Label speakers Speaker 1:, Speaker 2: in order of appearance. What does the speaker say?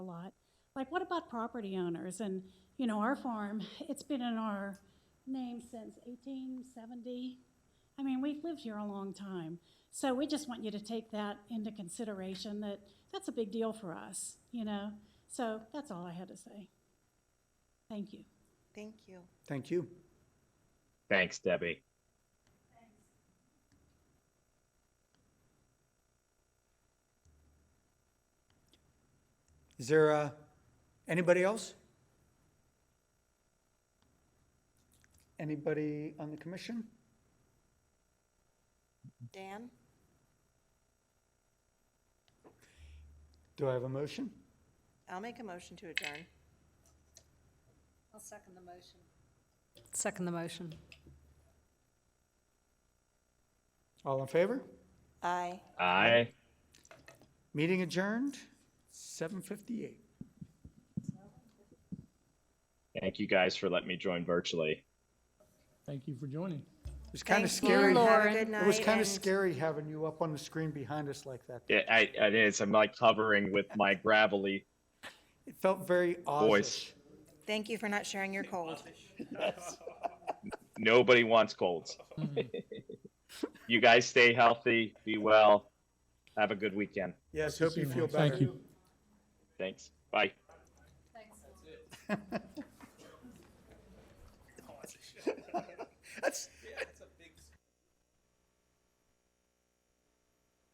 Speaker 1: like, what about property owners? And, you know, our farm, it's been in our name since 1870. I mean, we've lived here a long time. So we just want you to take that into consideration, that that's a big deal for us, you know? So that's all I had to say. Thank you.
Speaker 2: Thank you.
Speaker 3: Thank you.
Speaker 4: Thanks, Debbie.
Speaker 3: Is there uh, anybody else? Anybody on the commission?
Speaker 2: Dan?
Speaker 3: Do I have a motion?
Speaker 2: I'll make a motion to adjourn.
Speaker 5: I'll second the motion. Second the motion.
Speaker 3: All in favor?
Speaker 2: Aye.
Speaker 4: Aye.
Speaker 3: Meeting adjourned, 7:58.
Speaker 4: Thank you guys for letting me join virtually.
Speaker 6: Thank you for joining.
Speaker 3: It was kind of
Speaker 2: Thank you.
Speaker 3: scary.
Speaker 2: Have a
Speaker 5: Lauren.
Speaker 2: good night.
Speaker 3: It was kind
Speaker 2: and
Speaker 3: of scary having you up on the screen behind us like that.
Speaker 4: Yeah, I, it is. I'm like hovering with my gravelly.
Speaker 3: It felt very Oz.
Speaker 4: Voice.
Speaker 2: Thank you for not sharing your cold.
Speaker 4: Nobody wants colds. you guys stay healthy. Be well. Have a good weekend.
Speaker 3: Yes, hope you feel better.
Speaker 6: Thank you.
Speaker 4: Thanks. Bye.
Speaker 3: That's,